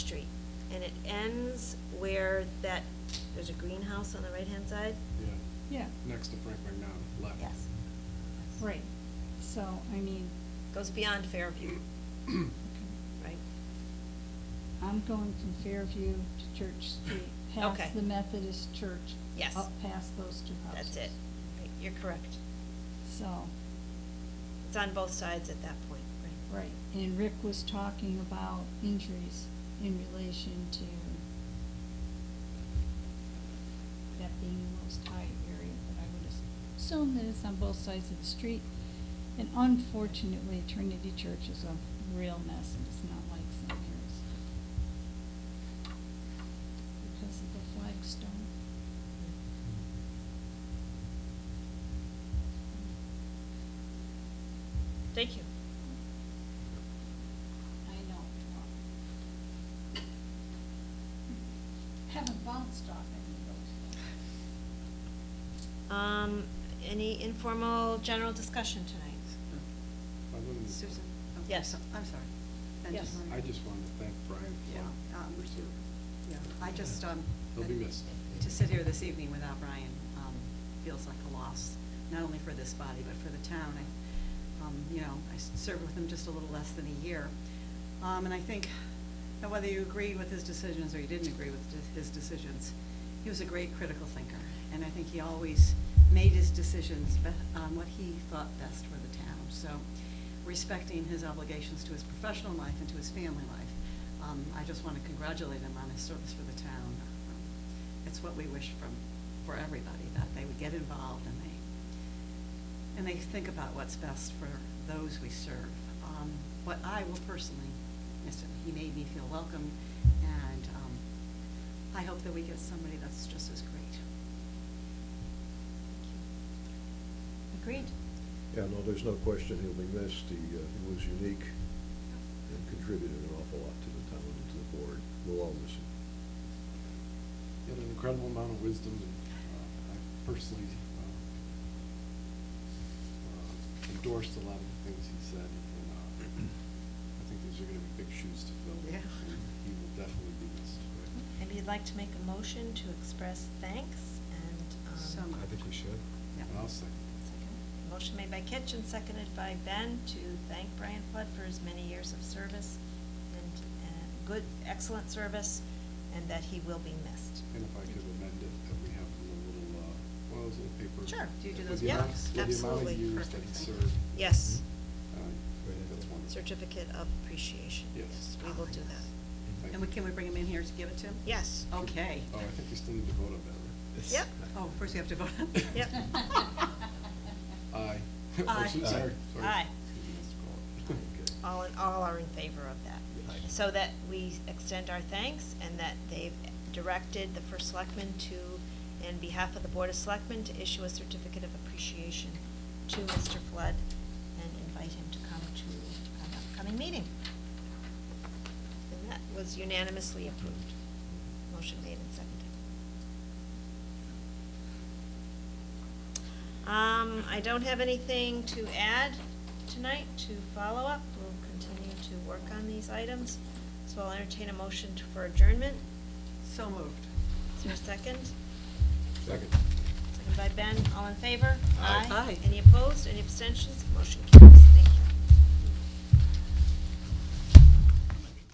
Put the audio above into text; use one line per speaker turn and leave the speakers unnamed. and it ends where that, there's a greenhouse on the right-hand side?
Yeah,
Yeah,
next to Frank McNaught, left.
Yes.
right. So, I mean,
Goes beyond Fairview, right?
I'm going from Fairview to Church Street,
Okay.
past the Methodist church.
Yes.
Up past those two houses.
That's it. Right, You're correct.
So,
It's on both sides at that point, right?
right, and Rick was talking about injuries in relation to that being the most high area, but I would assume that it's on both sides of the street. And unfortunately, Trinity Church is a real mess, and it's not like St. Mary's. Because of the flagstone.
Thank you.
I know. Haven't bounced off any of those.
Um, any informal general discussion tonight?
I wouldn't-
Susan? okay,
Yes.
so- I'm sorry. I
Yes.
just wanted-
I just wanted to thank Brian
Yeah,
for.
um, we do. Yeah, I just, um.
He'll be missed.
To sit here this evening without Brian, um, feels like a loss, not only for this body, but for the town. I, um, you know, I s- served with him just a little less than a year. Um, and I think that whether you agreed with his decisions or you didn't agree with de- his decisions, he was a great critical thinker. And I think he always made his decisions be- on what he thought best for the town. So respecting his obligations to his professional life and to his family life, um, I just want to congratulate him on his service for the town. Um, It's what we wish from, for everybody, that they would get involved and they, and they think about what's best for those we serve. Um, But I will personally miss him. He made me feel welcome and, um, I hope that we get somebody that's just as great.
Agreed.
Yeah, no, there's no question he'll be missed. He, uh, he was unique and contributed an awful lot to the town and to the board. We'll all miss him.
He had an incredible amount of wisdom, and uh, I personally uh, uh, endorsed a lot of the things he said, and uh, I think these are gonna be big shoes to fill.
Yeah.
and He will definitely be missed.
Maybe you'd like to make a motion to express thanks and, um.
So moved.
I think we should.
Yeah.
And I'll second.
Second. Motion made by Kitch and seconded by Ben to thank Brian Flood for his many years of service and, uh good, excellent service, and that he will be missed.
And if I could uh, amend it, that we have a little, uh, well, it's a paper.
Sure.
Do you do
With
those
the amount-
blocks?
Absolutely.
With the amount of years that
Perfect,
he
thank you.
served.
Yes,
uh, That's one.
certificate of appreciation.
Hmm? Yes.
We will do that.
Thank
And we,
you.
can we bring him in here to give it to him?
Yes.
Okay.
Oh, I think we still need to vote on that,
It's-
Yep.
Oh, first we have to vote.
Yep.
right? Aye.
Aye.
Oh, so- Sorry, sorry.
Aye.
Okay.
All in, all are in favor of that.
Aye.
So that we extend our thanks and that they've directed the first selectman to, in behalf of the Board of Selectmen, to issue a certificate of appreciation to Mr. Flood and invite him to come to an upcoming meeting. And that was unanimously approved. Motion made and seconded. Um, I don't have anything to add tonight to follow up. We'll continue to work on these items. So I'll entertain a motion to- for adjournment.
So moved.
Is there a second?
Second.
Second by Ben. All in favor?
Aye. Aye.
Any opposed? Any abstentions? Motion carries. Thank you.